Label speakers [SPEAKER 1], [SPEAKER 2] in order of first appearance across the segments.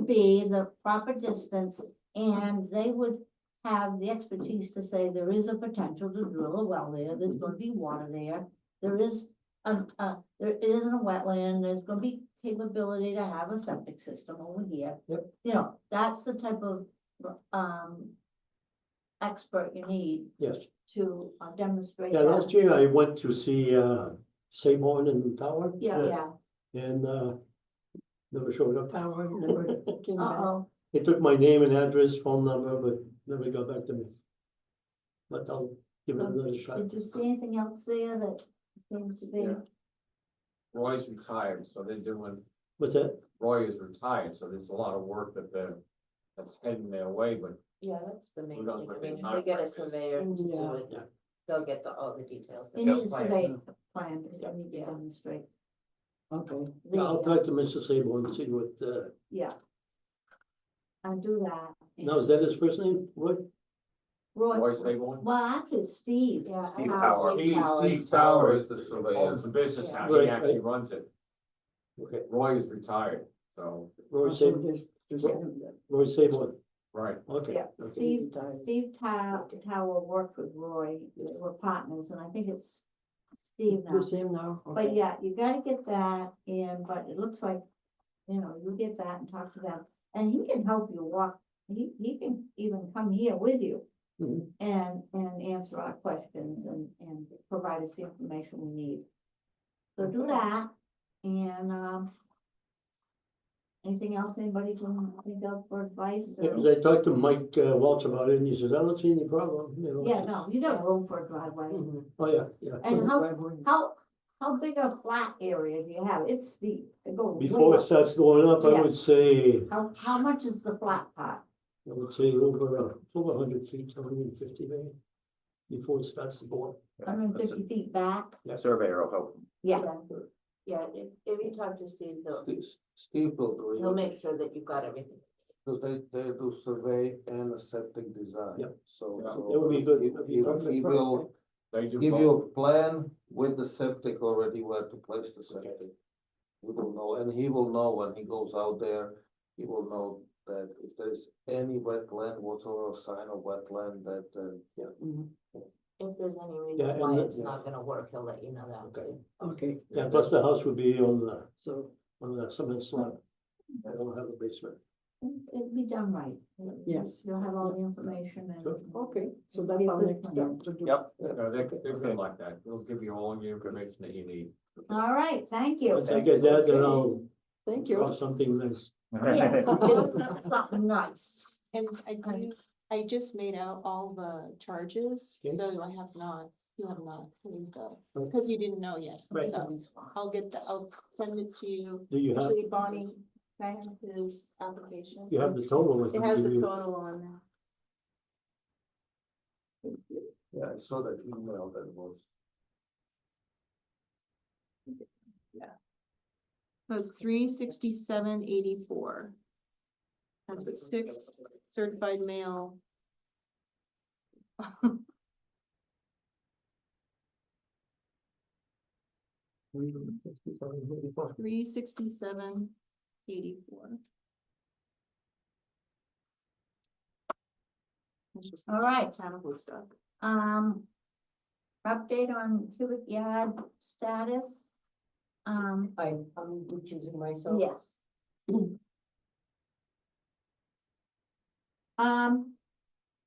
[SPEAKER 1] be the proper distance and they would have the expertise to say there is a potential to drill a well there, there's gonna be water there. There is, a uh, there it isn't a wetland, there's gonna be capability to have a septic system over here.
[SPEAKER 2] Yep.
[SPEAKER 1] You know, that's the type of, um, expert you need
[SPEAKER 2] Yes,
[SPEAKER 1] to uh, demonstrate
[SPEAKER 2] yeah, last
[SPEAKER 1] that.
[SPEAKER 2] year I went to see, uh, St. Martin in the tower.
[SPEAKER 1] Yeah, yeah,
[SPEAKER 2] And, uh, never showed up.
[SPEAKER 3] Tower, never came back.
[SPEAKER 1] uh-oh,
[SPEAKER 2] They took my name and address, phone number, but never got back to me. But I'll give it another shot.
[SPEAKER 1] did you see anything else there that seems to be?
[SPEAKER 4] Yeah. Roy's retired, so they're doing,
[SPEAKER 2] What's that?
[SPEAKER 4] Roy is retired, so there's a lot of work that they're, that's heading their way, but
[SPEAKER 5] Yeah, that's the main
[SPEAKER 4] Who
[SPEAKER 5] thing,
[SPEAKER 4] knows
[SPEAKER 5] I
[SPEAKER 4] what the
[SPEAKER 5] mean,
[SPEAKER 4] time
[SPEAKER 5] they get
[SPEAKER 4] frame
[SPEAKER 5] a
[SPEAKER 4] is.
[SPEAKER 5] surveyor to do
[SPEAKER 3] Yeah.
[SPEAKER 5] it,
[SPEAKER 2] Yeah.
[SPEAKER 5] they'll get the, all the details. that
[SPEAKER 1] You
[SPEAKER 5] they're
[SPEAKER 1] need a
[SPEAKER 5] planning.
[SPEAKER 1] survey plan, that you need to
[SPEAKER 5] Yeah.
[SPEAKER 1] demonstrate.
[SPEAKER 3] Okay.
[SPEAKER 1] the,
[SPEAKER 2] I'll talk to Mr. Sable and see what, uh,
[SPEAKER 1] Yeah. I'll do that.
[SPEAKER 2] now is that his first name? What?
[SPEAKER 1] Roy,
[SPEAKER 4] Roy Sableman.
[SPEAKER 1] well, actually Steve, yeah.
[SPEAKER 6] Steve
[SPEAKER 1] uh,
[SPEAKER 6] Howard.
[SPEAKER 1] Steve Howard.
[SPEAKER 4] Tower
[SPEAKER 6] is the surveyor.
[SPEAKER 4] Owns the business now,
[SPEAKER 2] Yeah.
[SPEAKER 4] he
[SPEAKER 2] Right,
[SPEAKER 4] actually
[SPEAKER 2] right.
[SPEAKER 4] runs it.
[SPEAKER 2] Okay,
[SPEAKER 4] Roy is retired, so,
[SPEAKER 2] Roy
[SPEAKER 3] Also,
[SPEAKER 2] Sable,
[SPEAKER 3] there's- there's him that-
[SPEAKER 2] Roy Sable,
[SPEAKER 4] right,
[SPEAKER 2] okay.
[SPEAKER 1] Yeah,
[SPEAKER 2] okay.
[SPEAKER 1] Steve,
[SPEAKER 3] Retired.
[SPEAKER 1] Steve Tow- Tower worked with Roy, they were partners, and I think it's Steve now.
[SPEAKER 3] There's him now.
[SPEAKER 1] But
[SPEAKER 3] okay.
[SPEAKER 1] yeah, you gotta get that in, but it looks like, you know, you'll get that and talk to them, and he can help you walk, he, he can even come here with you.
[SPEAKER 3] Mm-hmm.
[SPEAKER 2] Mhm.
[SPEAKER 1] And, and answer our questions and, and provide us the information we need. So do that, and, um. Anything else anybody can think of for advice or?
[SPEAKER 2] Because I talked to Mike uh, Welch about it and he says, I don't see any problem. you know,
[SPEAKER 1] Yeah,
[SPEAKER 2] it's-
[SPEAKER 1] no, you got room for a driveway,
[SPEAKER 5] Mm-hmm.
[SPEAKER 3] Mhm.
[SPEAKER 2] Oh, yeah, yeah.
[SPEAKER 1] and how,
[SPEAKER 3] Driveway.
[SPEAKER 1] how, how big a flat area do you have? It's steep, it goes. way
[SPEAKER 2] Before
[SPEAKER 1] up.
[SPEAKER 2] it starts going up, I
[SPEAKER 1] Yeah.
[SPEAKER 2] would say, I
[SPEAKER 1] How, how much is the flat part?
[SPEAKER 2] would say over, uh, over hundred feet, hundred and fifty maybe. Before it starts to go up.
[SPEAKER 1] Hundred and fifty feet back?
[SPEAKER 6] The surveyor will help.
[SPEAKER 1] Yeah,
[SPEAKER 5] Yeah, if, if you talk to Steve, he'll,
[SPEAKER 7] Steve will do
[SPEAKER 5] he'll
[SPEAKER 7] it,
[SPEAKER 5] make sure that you've got everything.
[SPEAKER 7] because they, they do survey and a septic design.
[SPEAKER 2] Yep.
[SPEAKER 7] So.
[SPEAKER 4] Yeah.
[SPEAKER 7] so
[SPEAKER 2] That would be good.
[SPEAKER 7] he-
[SPEAKER 2] That'd be
[SPEAKER 7] He
[SPEAKER 2] perfect.
[SPEAKER 7] he will
[SPEAKER 4] they do
[SPEAKER 7] give you
[SPEAKER 4] both.
[SPEAKER 7] a plan with the septic already where to place the septic. You will know, and he will know when he goes out there, he will know that if there's any wetland whatsoever, sign of wetland that, uh, yeah.
[SPEAKER 5] If there's any
[SPEAKER 2] Yeah,
[SPEAKER 5] reason
[SPEAKER 2] and
[SPEAKER 5] why
[SPEAKER 2] let-
[SPEAKER 5] it's not gonna work, he'll let you know that
[SPEAKER 2] Okay.
[SPEAKER 5] too.
[SPEAKER 3] Okay,
[SPEAKER 2] Yeah, plus the house would be on the,
[SPEAKER 3] so,
[SPEAKER 2] on the cement slab. I don't have a basement.
[SPEAKER 1] it'll be done right. You'll-
[SPEAKER 3] Yes.
[SPEAKER 1] You'll have all the information and.
[SPEAKER 2] Sure.
[SPEAKER 3] okay, so that's our next step to do.
[SPEAKER 6] Yep.
[SPEAKER 4] No, they're, they're good like that, they'll give you all your information that you need.
[SPEAKER 1] All right, thank you.
[SPEAKER 2] Once I get that, then I'll
[SPEAKER 3] Thank you.
[SPEAKER 2] draw something nice.
[SPEAKER 1] Yeah, so- Something nice.
[SPEAKER 8] And I
[SPEAKER 1] Okay.
[SPEAKER 8] do, I just made out all the charges,
[SPEAKER 2] Okay.
[SPEAKER 8] so I have not, you have not, here you go,
[SPEAKER 2] Okay.
[SPEAKER 8] because you didn't know yet,
[SPEAKER 2] Right.
[SPEAKER 8] so I'll get the, I'll send it to you.
[SPEAKER 2] Do you have,
[SPEAKER 8] Actually, Bonnie, can I have his application?
[SPEAKER 2] you have the total with
[SPEAKER 8] It
[SPEAKER 2] you?
[SPEAKER 8] has
[SPEAKER 2] do
[SPEAKER 8] a
[SPEAKER 2] you?
[SPEAKER 8] total on there.
[SPEAKER 7] Yeah, I saw that email that was.
[SPEAKER 8] Was three sixty-seven eighty-four. That's with six certified mail. Three sixty-seven eighty-four.
[SPEAKER 1] All right.
[SPEAKER 8] Town of Woodstock.
[SPEAKER 1] Um. Update on cubic yard status? Um,
[SPEAKER 5] I, I'm recusing myself.
[SPEAKER 1] yes. Um.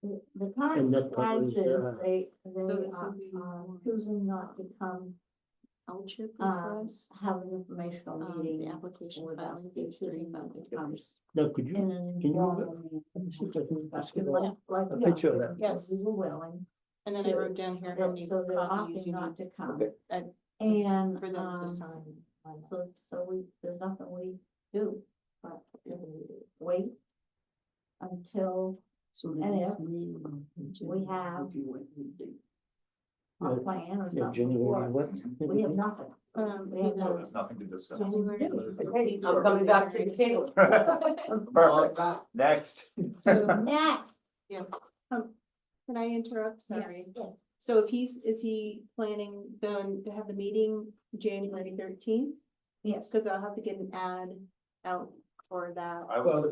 [SPEAKER 1] The the current
[SPEAKER 2] And that
[SPEAKER 1] status
[SPEAKER 2] covers,
[SPEAKER 1] is
[SPEAKER 2] uh,
[SPEAKER 1] they, they
[SPEAKER 8] So this
[SPEAKER 1] are
[SPEAKER 8] would be
[SPEAKER 1] are choosing not to come,
[SPEAKER 8] Township
[SPEAKER 1] um,
[SPEAKER 8] request,
[SPEAKER 1] have an informational
[SPEAKER 8] um, the
[SPEAKER 1] meeting.
[SPEAKER 8] application
[SPEAKER 1] with us,
[SPEAKER 8] filing
[SPEAKER 1] the
[SPEAKER 8] fee,
[SPEAKER 1] city
[SPEAKER 8] city foundation.
[SPEAKER 1] comes
[SPEAKER 2] Now, could
[SPEAKER 1] in
[SPEAKER 2] you,
[SPEAKER 1] an
[SPEAKER 2] Can you-
[SPEAKER 1] informal
[SPEAKER 2] let me see if I can ask
[SPEAKER 1] discussion,
[SPEAKER 2] you
[SPEAKER 1] like,
[SPEAKER 2] about-
[SPEAKER 1] like.
[SPEAKER 2] a
[SPEAKER 1] yeah,
[SPEAKER 2] picture of that.
[SPEAKER 1] Yes, we
[SPEAKER 8] Yes.
[SPEAKER 1] were willing,
[SPEAKER 8] and then I wrote down here how
[SPEAKER 1] but
[SPEAKER 8] many
[SPEAKER 1] so they're
[SPEAKER 8] copies
[SPEAKER 1] opting
[SPEAKER 8] you
[SPEAKER 1] not
[SPEAKER 8] need
[SPEAKER 1] to come.
[SPEAKER 7] Okay.
[SPEAKER 8] And-
[SPEAKER 1] And,
[SPEAKER 8] for them to
[SPEAKER 1] um,
[SPEAKER 8] sign. on that.
[SPEAKER 1] so, so we, there's nothing we do, but just wait until
[SPEAKER 3] So the
[SPEAKER 1] And
[SPEAKER 3] next
[SPEAKER 1] if
[SPEAKER 3] meeting.
[SPEAKER 1] we have-
[SPEAKER 3] If you want me to.
[SPEAKER 1] our
[SPEAKER 2] Yeah.
[SPEAKER 1] plan or
[SPEAKER 2] yeah,
[SPEAKER 1] something
[SPEAKER 2] January
[SPEAKER 1] works.
[SPEAKER 2] what?
[SPEAKER 1] We have nothing.
[SPEAKER 8] Um,
[SPEAKER 1] We have nothing.
[SPEAKER 8] we have-
[SPEAKER 6] There's nothing to discuss.
[SPEAKER 1] Nothing to do.
[SPEAKER 5] I'm coming back to the table.
[SPEAKER 6] Perfect, next.
[SPEAKER 8] So,
[SPEAKER 1] Next.
[SPEAKER 8] yeah, um, can I interrupt? Sorry.
[SPEAKER 1] Yes.
[SPEAKER 8] So if he's, is he planning then to have the meeting January thirteenth?
[SPEAKER 1] Yes.
[SPEAKER 8] Cause I'll have to get an ad out for that.
[SPEAKER 6] I would-
[SPEAKER 7] Well,